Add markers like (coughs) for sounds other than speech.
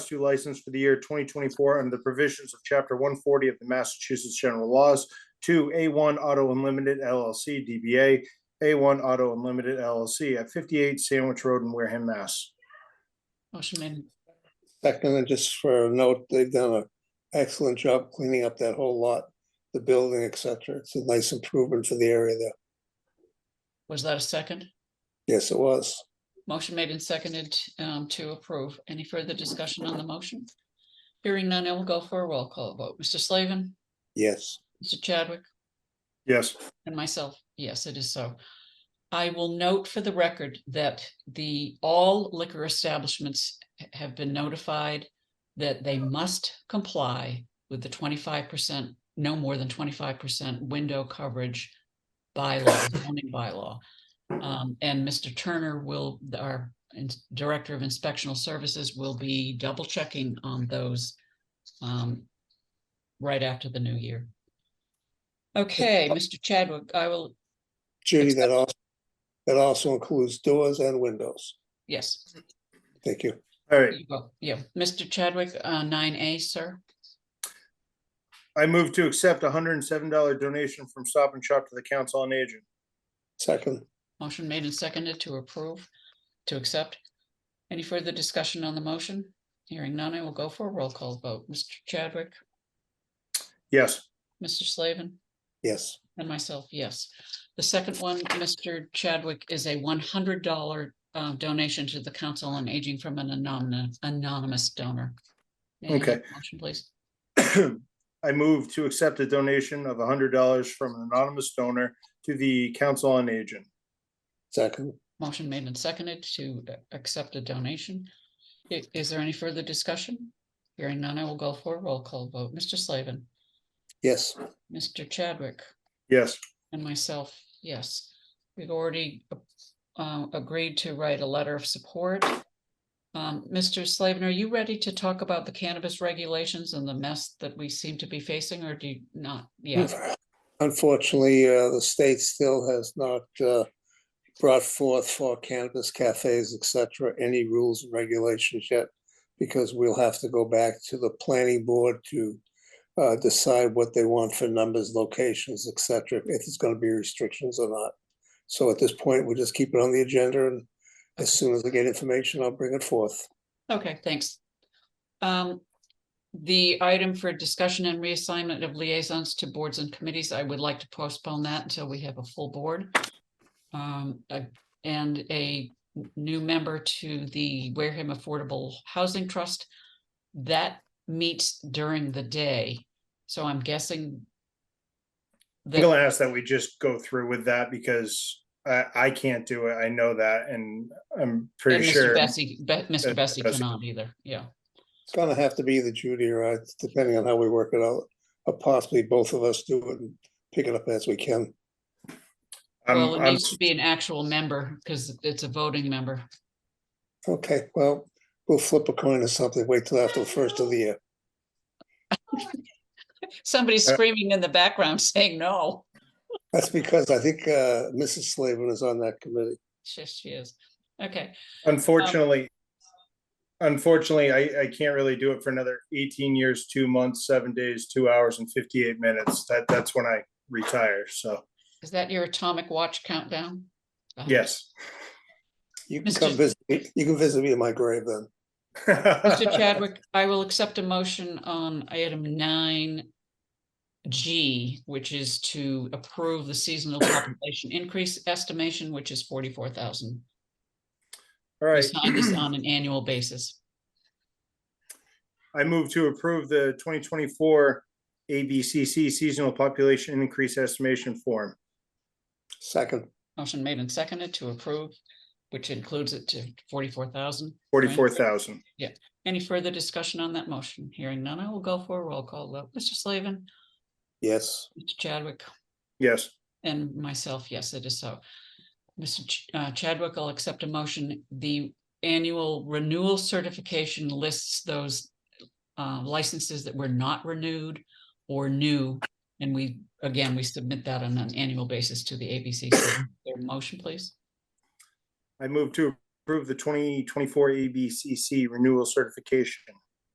two license for the year twenty twenty-four under the provisions of chapter one forty of the Massachusetts General Laws to A one Auto Unlimited LLC DBA A one Auto Unlimited LLC at fifty-eight Sandwich Road in Wareham, Mass. Motion made. Second, and just for a note, they've done an excellent job cleaning up that whole lot, the building, et cetera. It's a nice improvement for the area there. Was that a second? Yes, it was. Motion made and seconded um, to approve. Any further discussion on the motion? Hearing none, I will go for a roll call vote. Mr. Slavin, Yes, Mr. Chadwick, Yes, and myself. Yes, it is so. I will note for the record that the, all liquor establishments ha- have been notified that they must comply with the twenty-five percent, no more than twenty-five percent window coverage bylaw, zoning bylaw. Um, and Mr. Turner will, our ins- Director of Inspectional Services will be double checking on those um, right after the new year. Okay, Mr. Chadwick, I will, Judy, that also, that also includes doors and windows. yes, Thank you. all right. you go. yeah, Mr. Chadwick, uh, nine A, sir. I move to accept a hundred and seven dollar donation from Stop and Shop to the Council on Aging. Second, Motion made and seconded to approve, to accept. Any further discussion on the motion? Hearing none, I will go for a roll call vote. Mr. Chadwick, Yes, Mr. Slavin. yes, And myself, yes. The second one, Mr. Chadwick, is a one hundred dollar uh, donation to the Council on Aging from an anonymous, anonymous donor. May I have a Okay. Motion, please. (clears throat) I move to accept a donation of hundred dollars from an anonymous donor to the Council on Aging. second, Motion made and seconded to uh, accept a donation. I- Is there any further discussion? Hearing none, I will go for a roll call vote. Mr. Slavin, yes, Mr. Chadwick, Yes, and myself, yes. We've already uh, agreed to write a letter of support. Um, Mr. Slavin, are you ready to talk about the cannabis regulations and the mess that we seem to be facing, or do you not? Yeah, Unfortunately, uh, the state still has not, uh, brought forth for cannabis cafes, et cetera, any rules and regulations yet. Because we'll have to go back to the planning board to, uh, decide what they want for numbers, locations, et cetera, if it's gonna be restrictions or not. So at this point, we'll just keep it on the agenda and as soon as I get information, I'll bring it forth. okay, thanks. Um, the item for discussion and reassignment of liaisons to boards and committees, I would like to postpone that until we have a full board. Um, uh, and a n- new member to the Wareham Affordable Housing Trust. That meets during the day, so I'm guessing. I'm that- gonna ask that we just go through with that because I, I can't do it. I know that and I'm and pretty Mr. sure. Bessie, Be- Mr. Mr. Bessie Bessie. cannot either, yeah. It's gonna have to be the Judy or I, depending on how we work it out, or possibly both of us do it and pick it up as we can. I'm- Well, it I'm- needs to be an actual member, because it's a voting member. Okay, well, we'll flip a coin or something, wait till after the first of the year. Somebody's Uh, screaming in the background (laughs) saying no. That's because I think uh Mrs. Slavin is on that committee. She she is. Okay, Unfortunately, unfortunately, I, I can't really do it for another eighteen years, two months, seven days, two hours and fifty-eight minutes. That, that's when I retire. So, is that your atomic watch countdown? Uh, yes. (laughs) You can Mr. come visit, me- you can visit me in my grave then. (laughs) Mr. Chadwick, I will accept a motion on item nine G, which is to approve the (coughs) seasonal population increase estimation, which is forty-four thousand. All We right. (clears throat) signed this on an annual basis. I move to approve the twenty twenty-four ABCC seasonal population increase estimation form. Second, Motion made and seconded to approve, which includes it to forty-four thousand. Forty-four thousand. Any further discussion on that motion? Hearing none, I will go for a roll call vote. Mr. Slavin, yes, Mr. Chadwick, Yes. and myself, yes, it is so. Mr. Ch- uh, Chadwick, I'll accept a motion. The annual renewal certification lists those uh, licenses that were not renewed or new. And we, again, we submit that on an annual basis to the ABCC. Their motion, please. I move to approve the twenty twenty-four ABCC renewal certification.